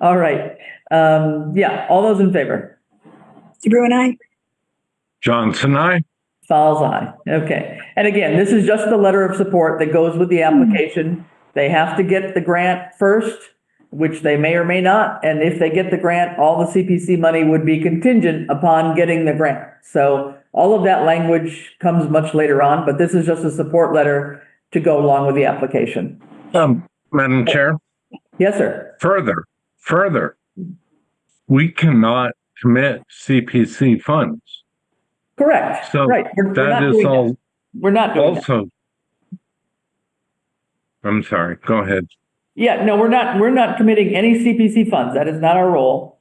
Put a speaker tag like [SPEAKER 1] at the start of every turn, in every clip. [SPEAKER 1] All right. Um, yeah, all those in favor?
[SPEAKER 2] DeBru and I.
[SPEAKER 3] Johnson, I.
[SPEAKER 1] Fowles eye. Okay. And again, this is just the letter of support that goes with the application. They have to get the grant first, which they may or may not. And if they get the grant, all the CPC money would be contingent upon getting the grant. So all of that language comes much later on, but this is just a support letter to go along with the application.
[SPEAKER 3] Um, Madam Chair,
[SPEAKER 1] Yes, sir.
[SPEAKER 3] further, further, we cannot commit CPC funds.
[SPEAKER 1] Correct.
[SPEAKER 3] So
[SPEAKER 1] Right. We're- we're not
[SPEAKER 3] that is
[SPEAKER 1] doing that.
[SPEAKER 3] all
[SPEAKER 1] We're not doing that.
[SPEAKER 3] also. I'm sorry, go ahead.
[SPEAKER 1] Yeah, no, we're not, we're not committing any CPC funds. That is not our role.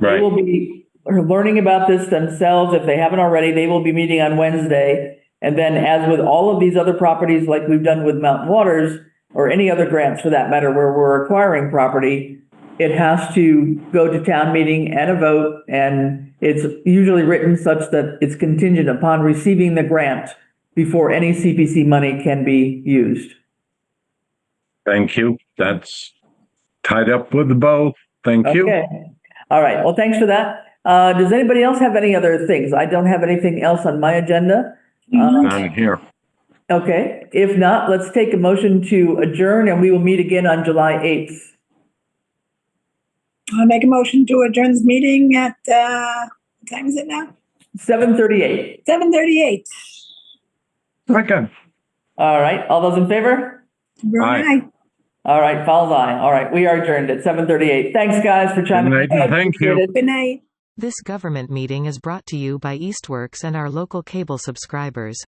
[SPEAKER 1] They
[SPEAKER 3] Right,
[SPEAKER 1] will be learning about this themselves. If they haven't already, they will be meeting on Wednesday. And then as with all of these other properties, like we've done with Mountain Waters or any other grants for that matter, where we're acquiring property, it has to go to town meeting and a vote. And it's usually written such that it's contingent upon receiving the grant before any CPC money can be used.
[SPEAKER 3] thank you. That's tied up with the bow. Thank you.
[SPEAKER 1] Okay. All right. Well, thanks for that. Uh, does anybody else have any other things? I don't have anything else on my agenda. Um,
[SPEAKER 3] I'm here.
[SPEAKER 1] okay. If not, let's take a motion to adjourn and we will meet again on July 8th.
[SPEAKER 2] I'll uh, make a motion to adjourn this meeting at, uh, what time is it now?
[SPEAKER 1] 7:38.
[SPEAKER 2] Seven thirty-eight.
[SPEAKER 3] Second,
[SPEAKER 1] All right. All those in favor?
[SPEAKER 2] DeBru and
[SPEAKER 3] Aye.
[SPEAKER 2] I.
[SPEAKER 1] All right. Follows eye. All right. We are adjourned at 7:38. Thanks guys for chiming in.
[SPEAKER 3] Good night. Thank you.
[SPEAKER 1] Appreciate it.
[SPEAKER 2] Good night.
[SPEAKER 4] This government meeting is brought to you by Eastworks and our local cable subscribers.